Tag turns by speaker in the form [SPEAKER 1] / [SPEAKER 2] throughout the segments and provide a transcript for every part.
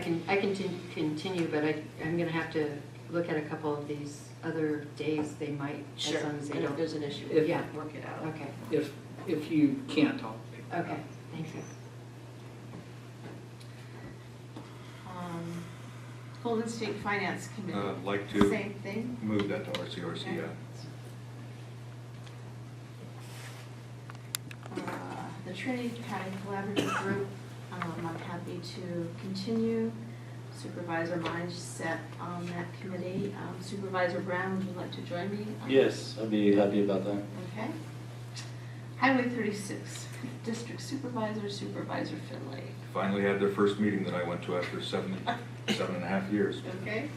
[SPEAKER 1] can, I can tin- continue, but I, I'm gonna have to look at a couple of these other days they might, as long as they
[SPEAKER 2] And if
[SPEAKER 1] don't.
[SPEAKER 2] there's an issue,
[SPEAKER 3] If-
[SPEAKER 2] we can work it out.
[SPEAKER 1] Okay,
[SPEAKER 3] If, if you can't, I'll pick it up.
[SPEAKER 1] okay, thank you.
[SPEAKER 4] Um, Golden State Finance Committee,
[SPEAKER 5] Uh, like to-
[SPEAKER 4] same thing?
[SPEAKER 5] Move that to RCRC,
[SPEAKER 4] Okay.
[SPEAKER 5] yeah.
[SPEAKER 4] Uh, The Trinity County Collaborative Group, um, I'm happy to continue. Supervisor mindset on that committee. Um, Supervisor Brown, would you like to join me? on-
[SPEAKER 6] Yes, I'd be happy about that.
[SPEAKER 4] Okay. Highway 36, District Supervisor, Supervisor Finley.
[SPEAKER 5] Finally had their first meeting that I went to after seven, seven and a half years.
[SPEAKER 4] Okay?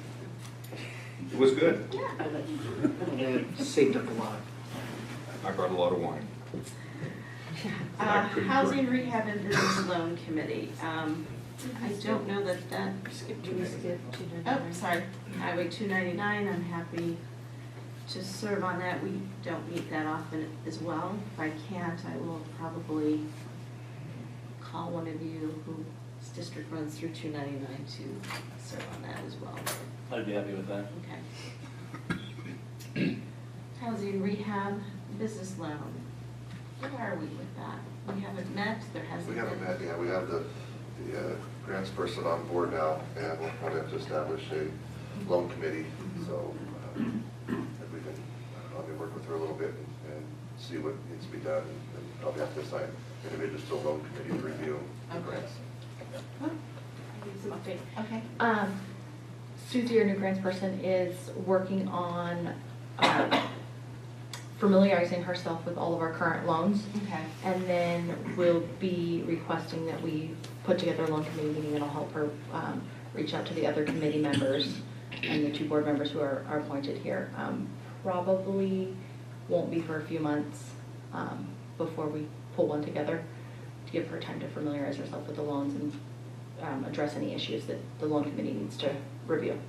[SPEAKER 5] It was good.
[SPEAKER 4] Yeah.
[SPEAKER 3] And I saved up a lot.
[SPEAKER 5] I brought a lot of wine.
[SPEAKER 4] Uh,
[SPEAKER 5] I couldn't
[SPEAKER 4] Housing
[SPEAKER 5] drink.
[SPEAKER 4] Rehab and Business Loan Committee. Um, I don't know that that,
[SPEAKER 2] Do we skip to the-
[SPEAKER 4] oh, sorry, Highway 299, I'm happy to serve on that. We don't meet that often as well. If I can't, I will probably call one of you whose district runs through 299 to serve on that as well.
[SPEAKER 6] I'd be happy with that.
[SPEAKER 4] Okay. Housing rehab, business loan. Where are we with that? We haven't met, there hasn't
[SPEAKER 7] We
[SPEAKER 4] been.
[SPEAKER 7] haven't met yet, we have the, the uh, grants person on board now, and we'll probably have to establish a loan committee, so uh, if we can, I don't know, maybe work with her a little bit and and see what needs to be done, and probably have to assign individuals to a loan committee to review the
[SPEAKER 4] Okay.
[SPEAKER 7] grants.
[SPEAKER 4] Oh,
[SPEAKER 8] Some update.
[SPEAKER 4] Okay.
[SPEAKER 8] Um, Susie, your new grants person, is working on uh, familiarizing herself with all of our current loans.
[SPEAKER 4] Okay.
[SPEAKER 8] And then we'll be requesting that we put together a loan committee meeting that'll help her um, reach out to the other committee members and the two board members who are, are appointed here. Um, Probably won't be for a few months um, before we pull one together to give her time to familiarize herself with the loans and um, address any issues that the loan committee needs to review.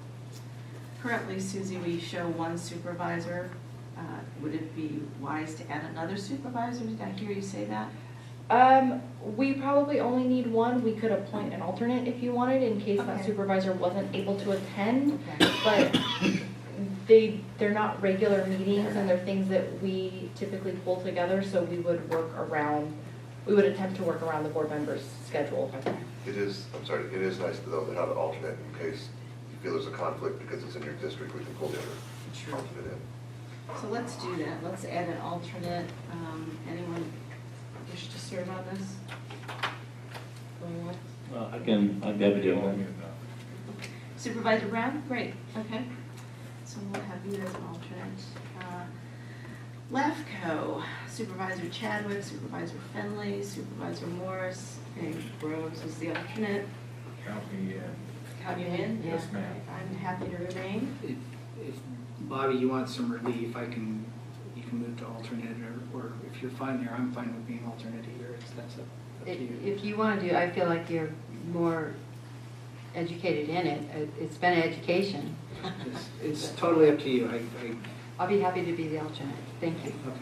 [SPEAKER 4] Currently, Susie, we show one supervisor. Uh, Would it be wise to add another supervisor? Did I hear you say that?
[SPEAKER 8] Um, we probably only need one. We could appoint an alternate if you wanted, in case
[SPEAKER 4] Okay.
[SPEAKER 8] that supervisor wasn't able to attend.
[SPEAKER 4] Okay.
[SPEAKER 8] But they, they're not regular meetings, and they're things that we typically pull together, so we would work around, we would attempt to work around the board members' schedule.
[SPEAKER 7] It is, I'm sorry, it is nice though to have an alternate in case you feel there's a conflict, because it's in your district, we can pull the other alternate in.
[SPEAKER 4] So let's do that. Let's add an alternate. Um, Anyone wish to serve on this? Going once?
[SPEAKER 6] Well, I can, I'd be happy doing that.
[SPEAKER 5] uh,
[SPEAKER 4] Supervisor Brown, great, okay. So we'll have you as an alternate. Uh, LAFCO, Supervisor Chadwick, Supervisor Finley, Supervisor Morris, and Groves is the alternate.
[SPEAKER 5] Count me in.
[SPEAKER 4] Count you in?
[SPEAKER 5] Yes, ma'am.
[SPEAKER 4] I'm happy to remain.
[SPEAKER 3] If, if, Bobby, you want some relief, I can, you can move to alternate, or, or if you're fine there, I'm fine with being alternate either, it's, that's up up to
[SPEAKER 1] If
[SPEAKER 3] you.
[SPEAKER 1] if you wanna do, I feel like you're more educated in it, It- it's been an education.
[SPEAKER 3] It's, it's totally up to you, I, I,
[SPEAKER 1] I'll be happy to be the alternate, thank you.
[SPEAKER 3] okay.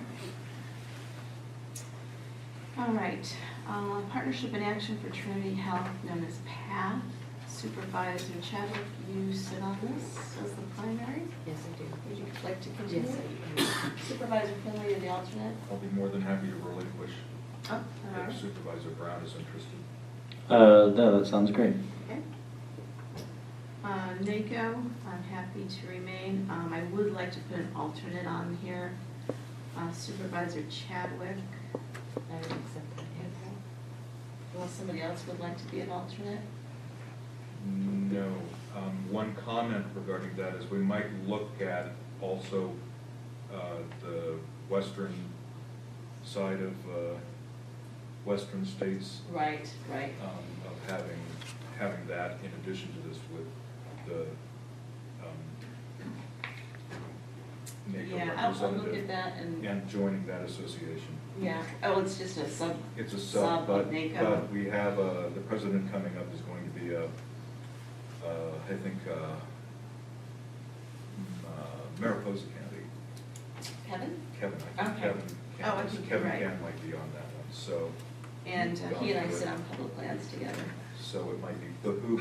[SPEAKER 4] All right, uh, Partnership in Action for Trinity Health, known as PATH. Supervisor Chadwick, you sit on this as the primary.
[SPEAKER 1] Yes, I do.
[SPEAKER 4] Would you like to continue?
[SPEAKER 1] Yes, I do.
[SPEAKER 4] Supervisor Finley, you're the alternate.
[SPEAKER 5] I'll be more than happy to relinquish
[SPEAKER 4] Oh, all right.
[SPEAKER 5] if Supervisor Brown is interested.
[SPEAKER 6] Uh, no, that sounds great.
[SPEAKER 4] Okay. Uh, NACO, I'm happy to remain. Um, I would like to put an alternate on here. Uh, Supervisor Chadwick.
[SPEAKER 1] I would accept that, yes.
[SPEAKER 4] Unless somebody else would like to be an alternate?
[SPEAKER 5] No. Um, One comment regarding that is we might look at also uh, the western side of uh, western states
[SPEAKER 4] Right, right.
[SPEAKER 5] um, of having, having that in addition to this with the um, NATO
[SPEAKER 4] Yeah, I'll- I'll look at
[SPEAKER 5] representative
[SPEAKER 4] that and,
[SPEAKER 5] and joining that association.
[SPEAKER 4] yeah, oh, it's just a sub.
[SPEAKER 5] It's a
[SPEAKER 4] Sub
[SPEAKER 5] sub,
[SPEAKER 4] of
[SPEAKER 5] but,
[SPEAKER 4] NACO.
[SPEAKER 5] but we have, uh, the president coming up is going to be, uh, uh, I think, uh, uh, Mariposa County,
[SPEAKER 4] Kevin?
[SPEAKER 5] Kevin, I think
[SPEAKER 4] Okay.
[SPEAKER 5] Kevin,
[SPEAKER 4] Oh, I
[SPEAKER 5] Can-
[SPEAKER 4] think you're
[SPEAKER 5] Kevin
[SPEAKER 4] right.
[SPEAKER 5] Can might be on that one, so,
[SPEAKER 4] And uh, he and I sit on public lands together.
[SPEAKER 5] so it might be behoove